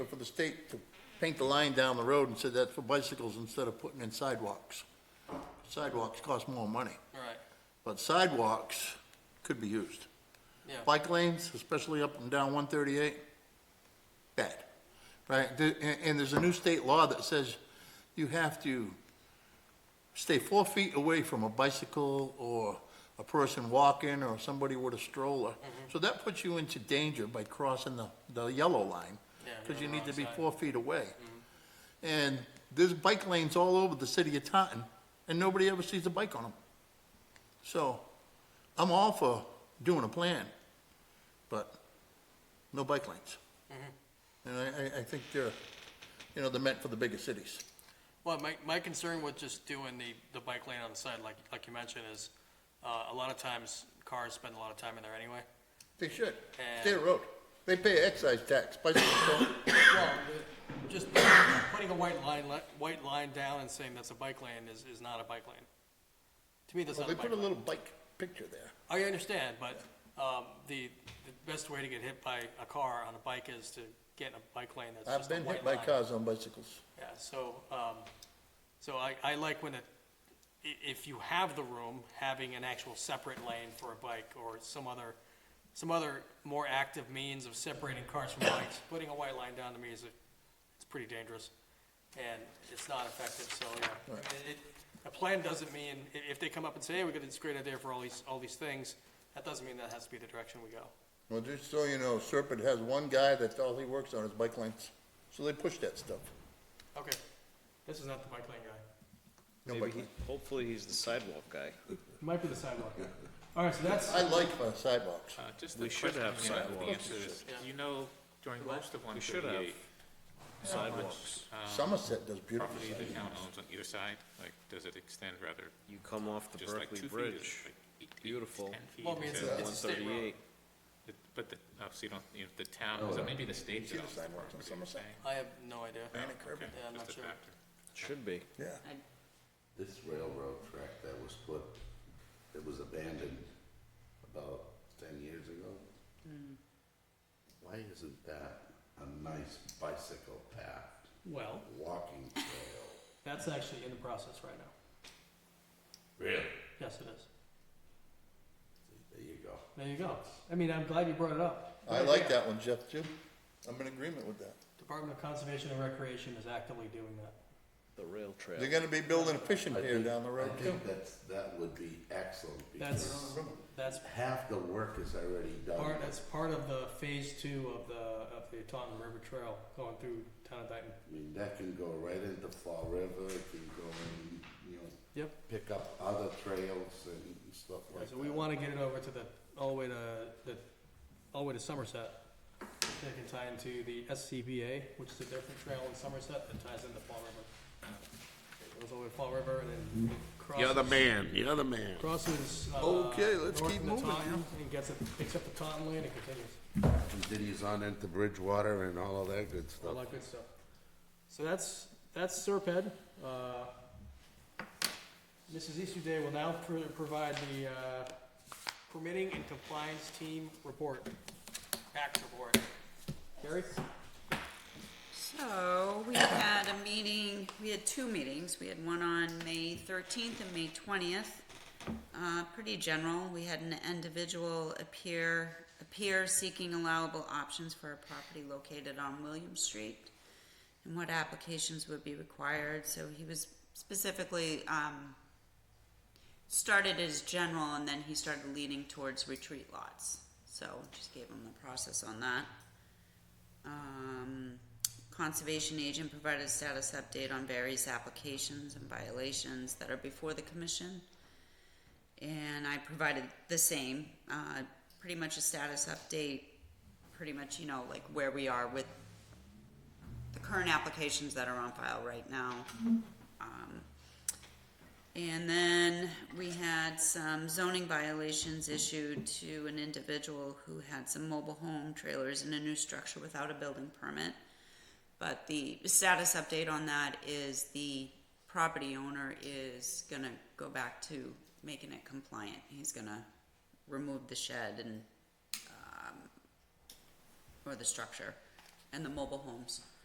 for the state to paint the line down the road and said that's for bicycles instead of putting in sidewalks. Sidewalks cost more money, Right, but sidewalks could be used. yeah. Bike lanes, especially up and down one thirty-eight, bad, right? The- And, and there's a new state law that says you have to stay four feet away from a bicycle or a person walking or somebody with a stroller. Mm-hmm. So that puts you into danger by crossing the, the yellow line. Yeah, you're Cause you on the need wrong to be side. Mm-hmm. four feet away. And there's bike lanes all over the city of Taunton and nobody ever sees a bike on them. So I'm all for doing a plan, but no bike lanes. And I, I, I think they're, you know, they're meant for the bigger cities. Well, my, my concern with just doing the, the bike lane on the side, like, like you mentioned, is, uh, a lot of times cars spend a lot of time in there anyway. They should. And- State road. They pay excise tax, bicycle do Well, the- just putting a white line, li- white line down and saying that's a bike lane is, is not a bike lane. To me, that's Well, not they a bike put a lane. little bike picture there. I understand, but, um, the, the best way to get hit by a car on a bike is to get in a bike lane that's I've just a been white hit line. by cars on bicycles. Yeah, so, um, so I, I like when it, i- if you have the room, having an actual separate lane for a bike or some other, some other more active means of separating cars from bikes. Putting a white line down to me is, a- it's pretty dangerous and it's not effective, so, yeah. It- it- A plan doesn't mean, i- if they come up and say, hey, we got this great idea for all these, all these things, that doesn't mean that has to be the direction we go. Well, just so you know, Serpent has one guy that's all he works on is bike lanes. So they push that stuff. Okay, this is not the bike lane guy. No Maybe bike he, lanes. hopefully he's the sidewalk guy. Might be the sidewalk guy. All right, so that's, I like uh, sidewalks. Uh, Just We a should question, have you know, sidewalks. the answer is, you know, during most of one We should have thirty-eight, sidewalks. Um, Somerset does beautiful property the sidewalks. town owns on either side, like, does it extend rather, You come off the just like Berkeley two feet? or Bridge, like eight- eight- beautiful. ten feet? well, I mean, it's, So a- it's one a state road. thirty-eight. it- But the, oh, so you don't, you know, the Oh, town, so maybe the state see the develops the sidewalks on property, you're Somerset? saying? I have no idea. Granite curb. Okay, Yeah, I'm just not a sure. factor. should be. Yeah. This railroad track that was put, it was abandoned about ten years ago. Mm. Why isn't that a nice bicycle path, Well, walking trail? that's actually in the process right now. Really? Yes, it is. There you go. There you go. I mean, I'm glad you brought it up. I like that one, Jeff, too. I'm in agreement with that. Department of Conservation and Recreation is actively doing that. The rail trail. They're gonna be building a fishing I pier think- down the road, I too. think that's, that would be excellent That's, because that's half the work is already done. part, that's part of the phase two of the, of the Taunton River Trail going through town of Dayton. I mean, that can go right into Fall River, it can go and, you know, Yep. pick up other trails and stuff like that. So we wanna get it over to the, all the way to, the, all the way to Somerset. They can tie into the SCBA, which is a different trail in Somerset that ties into Fall River. It goes all the way to Fall River and Mm-hmm. then crosses. You're the man, you're the man. crosses. uh, Okay, let's north keep into moving, Taunton And gets it, picks up the Taunton Lane and continues, continues on into Bridgewater and all of that good all stuff. that good stuff. So that's, that's Serped. Uh, Mrs. Easterday will now pro- provide the uh, permitting and compliance team report, back report. Gary? So, we had a meeting, we had two meetings, we had one on May thirteenth and May twentieth. Uh, pretty general, we had an individual appear, appear seeking allowable options for a property located on William Street. And what applications would be required, so he was specifically, um, started as general and then he started leaning towards retreat lots. So, just gave him the process on that. Um, conservation agent provided a status update on various applications and violations that are before the commission. And I provided the same, uh, pretty much a status update, pretty much, you know, like where we are with the current applications that are on file right now. Um, and then we had some zoning violations issued to an individual who had some mobile home trailers in a new structure without a building permit. But the status update on that is the property owner is gonna go back to making it compliant. He's gonna remove the shed and, um, or the structure and the mobile homes.